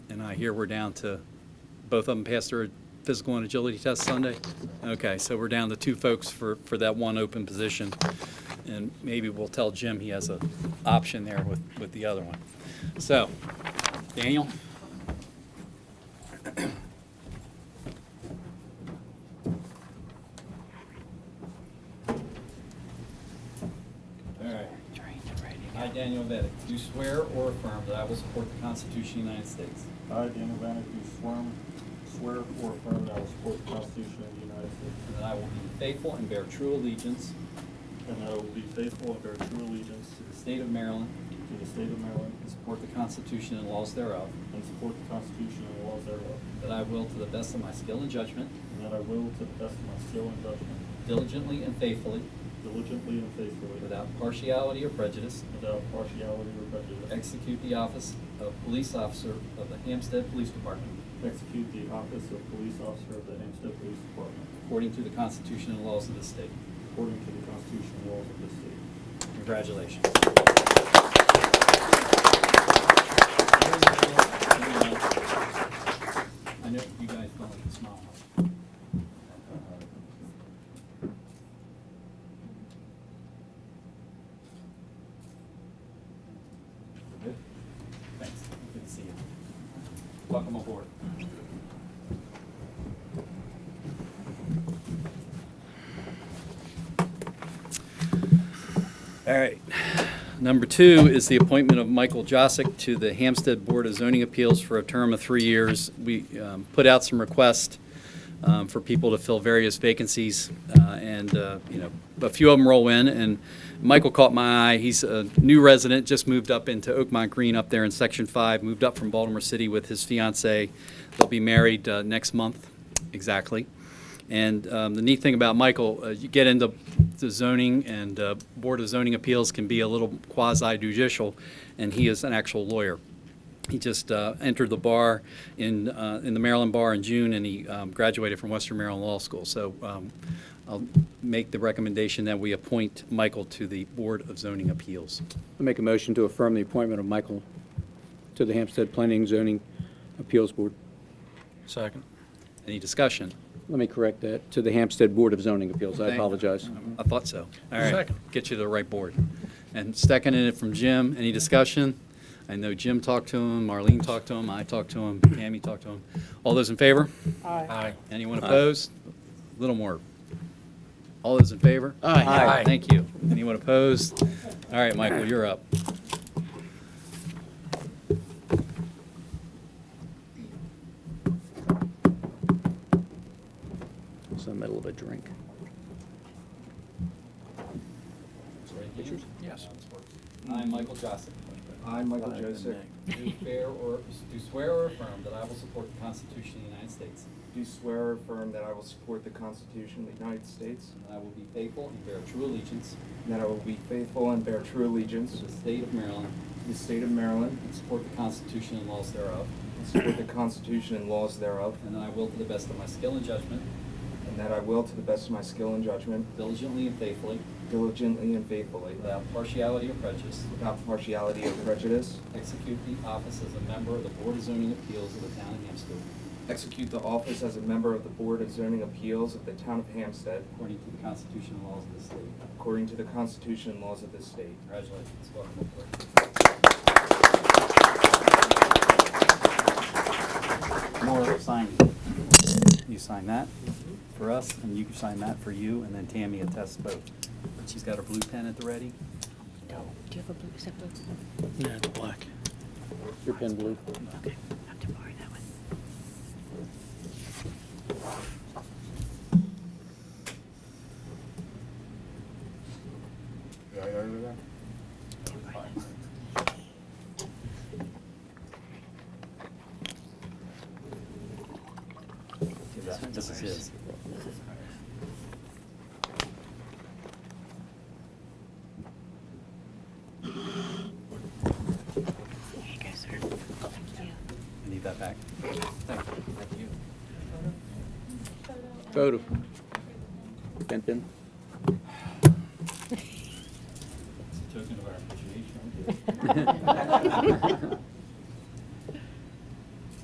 And I hear we're down to, both of them passed their physical and agility test Sunday? Okay, so we're down to two folks for, for that one open position. And maybe we'll tell Jim he has a option there with, with the other one. So, Daniel? All right. I, Daniel Bennett, do swear or affirm that I will support the Constitution of the United States, I, Daniel Bannick, do swear, swear or affirm that I will support the Constitution of the United States, and that I will be faithful and bear true allegiance and that I will be faithful and bear true allegiance to the state of Maryland to the state of Maryland, and support the Constitution and laws thereof, and support the Constitution and laws thereof, that I will, to the best of my skill and judgment, and that I will, to the best of my skill and judgment, diligently and faithfully, diligently and faithfully, without partiality or prejudice, without partiality or prejudice, execute the office of police officer of the Hampstead Police Department execute the office of police officer of the Hempstead Police Department, according to the Constitution and laws of the state. according to the Constitution and laws of this state. Congratulations. I know you guys don't like to smile. Good? Thanks. Good to see you. Welcome aboard. All right. Number two is the appointment of Michael Josick to the Hampstead Board of Zoning Appeals for a term of three years. We um, put out some requests um, for people to fill various vacancies, uh, and, uh, you know, a few of them roll in, and Michael caught my eye. He's a new resident, just moved up into Oakmont Green up there in Section 5, moved up from Baltimore City with his fiancee. They'll be married uh, next month, exactly. And um, the neat thing about Michael, uh, you get into the zoning and uh, Board of Zoning Appeals can be a little quasi judicial, and he is an actual lawyer. He just uh, entered the bar in, uh, in the Maryland Bar in June, and he um, graduated from Western Maryland Law School. So um, I'll make the recommendation that we appoint Michael to the Board of Zoning Appeals. I make a motion to affirm the appointment of Michael to the Hampstead Planning and Zoning Appeals Board. Second. Any discussion? Let me correct that, to the Hampstead Board of Zoning Appeals. I Thank- apologize. I thought so. All right, Second. get you to the right board. And seconded it from Jim, any discussion? I know Jim talked to him, Marlene talked to him, I talked to him, Tammy talked to him. All those in favor? Aye. Anyone opposed? A Little more. All those in favor? Aye. Thank you. Anyone opposed? All right, Michael, you're up. It's in the middle of a drink. Yes. I, Michael Joseph. I, Michael Joseph, Do fair or, do swear or affirm that I will support the Constitution of the United States. do swear or affirm that I will support the Constitution of the United States, And that I will be faithful and bear true allegiance and that I will be faithful and bear true allegiance to the state of Maryland to the state of Maryland, and support the Constitution and laws thereof. and support the Constitution and laws thereof, And that I will, to the best of my skill and judgment, and that I will, to the best of my skill and judgment, diligently and faithfully, diligently and faithfully, without partiality or prejudice, without partiality or prejudice, execute the office as a member of the Board of Zoning Appeals of the Town of Hampstead execute the office as a member of the Board of Zoning Appeals of the Town of Hampstead, according to the Constitution and laws of the state. according to the Constitution and laws of this state. Congratulations, welcome aboard. More signing. You sign that for us, and you can sign that for you, and then Tammy attests both. She's got her blue pen at the ready. No. Do you have a blue, is that blue? Yeah, it's black. Your pen blue. Okay, I have to borrow that one. Yeah, I that. This is his. There you go, sir. Thank you. I need that back. Thank you. Photo. Pen, pen. It's a token of our appreciation.